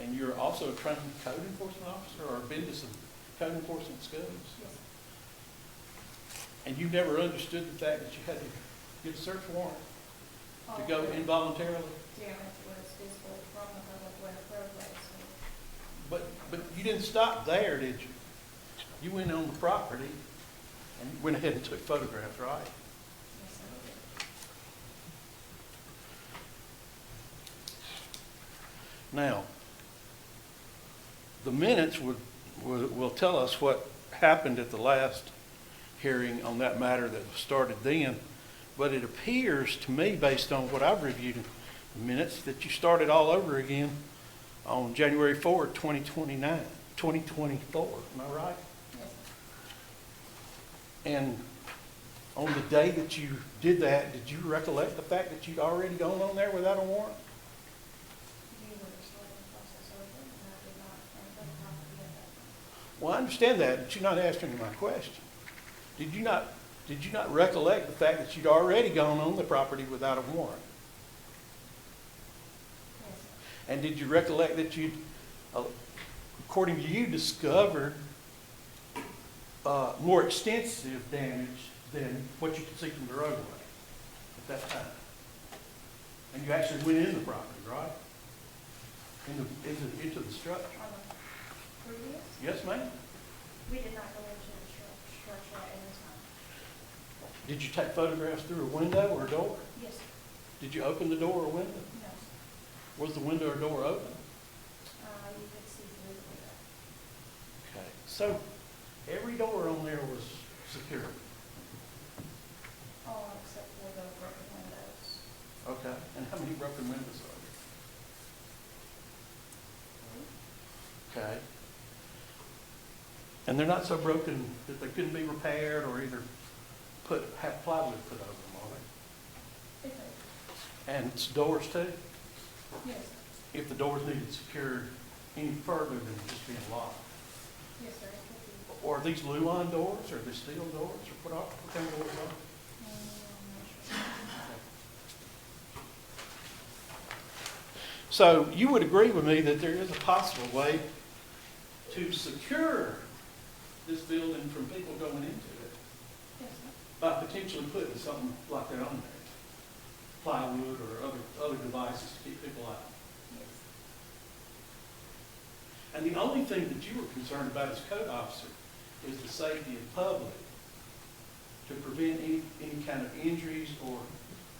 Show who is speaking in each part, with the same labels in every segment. Speaker 1: and you're also a trained code enforcement officer or been to some code enforcement schools? And you've never understood the fact that you had to get a search warrant to go
Speaker 2: Oh.
Speaker 1: involuntarily?
Speaker 2: Damage was visible from the public way of roadway, so
Speaker 1: But, but you didn't stop there, did you? You went on the property and you went ahead and took photographs, right?
Speaker 2: yes, I did.
Speaker 1: Now, the minutes would, would- will tell us what happened at the last hearing on that matter that was started then, but it appears to me, based on what I've reviewed in the minutes, that you started all over again on January 4, 2029, 2024, am I right?
Speaker 2: Yes,
Speaker 1: And on the day that you did that, did you recollect the fact that you'd already gone on there without a warrant?
Speaker 2: you were starting the process over, and I did not, and the property at that time.
Speaker 1: Well, I understand that, but you're not answering my question. Did you not, did you not recollect the fact that you'd already gone on the property without a warrant?
Speaker 2: Yes,
Speaker 1: And did you recollect that you'd, uh, according to you, discovered uh, more extensive damage than what you could see from the roadway at that time? And you actually went in the property, right? Into, into, into the structure?
Speaker 2: on the previous,
Speaker 1: Yes, ma'am?
Speaker 2: we did not go into the stru- structure at any time.
Speaker 1: Did you take photographs through a window or a door?
Speaker 2: Yes,
Speaker 1: Did you open the door or window?
Speaker 2: no,
Speaker 1: Was the window or door open?
Speaker 2: uh, you could see through the window.
Speaker 1: Okay. So every door on there was secure.
Speaker 2: all except for the broken windows.
Speaker 1: Okay. And how many broken windows are there? Okay. And they're not so broken that they couldn't be repaired or either put, have plywood put over them, are
Speaker 2: Okay,
Speaker 1: they? And it's doors too?
Speaker 2: yes,
Speaker 1: If the doors needed secured any further than just being locked?
Speaker 2: yes, sir, it could be.
Speaker 1: Or are these Luon doors or are they steel doors or what are, what kind of doors are? they?
Speaker 2: Mm,
Speaker 1: So you would agree with me that there is a possible way to secure this building from people going into it
Speaker 2: Yes, sir.
Speaker 1: by potentially putting something like that on there, plywood or other, other devices to keep people out.
Speaker 2: Yes,
Speaker 1: And the only thing that you were concerned about as code officer is the safety of public, to prevent any, any kind of injuries or,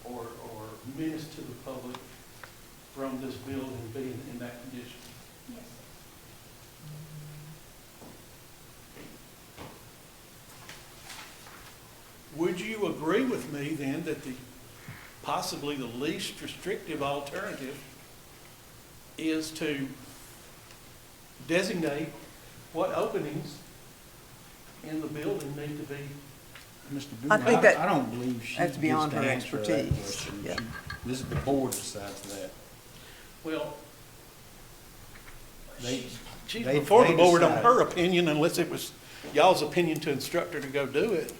Speaker 1: or, or menace to the public from this building being in that condition.
Speaker 2: yes, sir.
Speaker 1: Would you agree with me then that the, possibly the least restrictive alternative is to designate what openings in the building need to be?
Speaker 3: Mr.
Speaker 4: I
Speaker 3: Boomer,
Speaker 4: think that-
Speaker 3: I, I don't believe she
Speaker 4: that's
Speaker 3: gets to
Speaker 4: beyond her
Speaker 3: answer that
Speaker 4: expertise,
Speaker 3: question.
Speaker 4: yeah.
Speaker 3: She- This is the board decides that.
Speaker 1: Well,
Speaker 3: They,
Speaker 1: she's
Speaker 3: They-
Speaker 1: before the
Speaker 3: they
Speaker 1: board on
Speaker 3: decide.
Speaker 1: her opinion unless it was y'all's opinion to instruct her to go do it.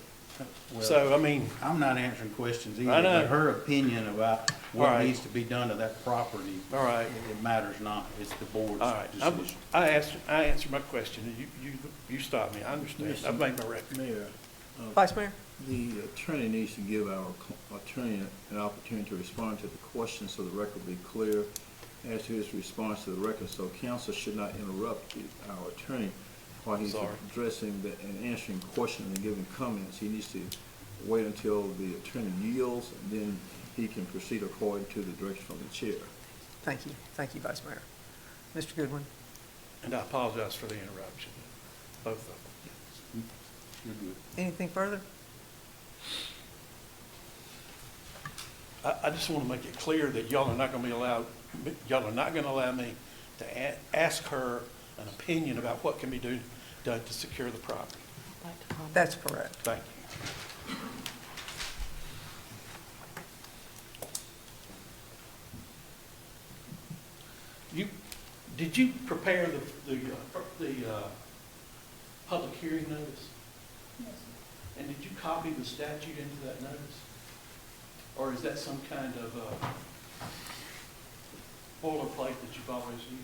Speaker 3: well,
Speaker 1: So, I mean,
Speaker 3: I'm not answering questions either.
Speaker 1: I know.
Speaker 3: but Her opinion about
Speaker 1: All
Speaker 3: what
Speaker 1: right.
Speaker 3: needs to be done to that property,
Speaker 1: all right,
Speaker 3: it it matters not. It's the board's
Speaker 1: all right. I-
Speaker 3: decision.
Speaker 1: I asked, I answered my question and you, you, you stopped me. I understand.
Speaker 5: Yes,
Speaker 1: I've made my record.
Speaker 5: Mayor, uh,
Speaker 4: Vice Mayor?
Speaker 5: the attorney needs to give our cl- attorney an opportunity to respond to the question so the record will be clear as to his response to the record. So counsel should not interrupt the- our attorney while he's
Speaker 1: Sorry.
Speaker 5: addressing the- and answering questions and giving comments. He needs to wait until the attorney yields, and then he can proceed according to the direction from the chair.
Speaker 4: Thank you, thank you, Vice Mayor. Mr. Goodwin?
Speaker 1: And I apologize for the interruption, both of them.
Speaker 3: You're good.
Speaker 4: Anything further?
Speaker 1: I, I just want to make it clear that y'all are not going to be allowed, y'all are not going to allow me to a- ask her an opinion about what can be do, done to secure the property.
Speaker 4: That's correct.
Speaker 1: Thank you. You, did you prepare the, the, uh, pu- the, uh, public hearing notice?
Speaker 2: Yes, sir.
Speaker 1: And did you copy the statute into that notice? Or is that some kind of uh, boilerplate that you've always used?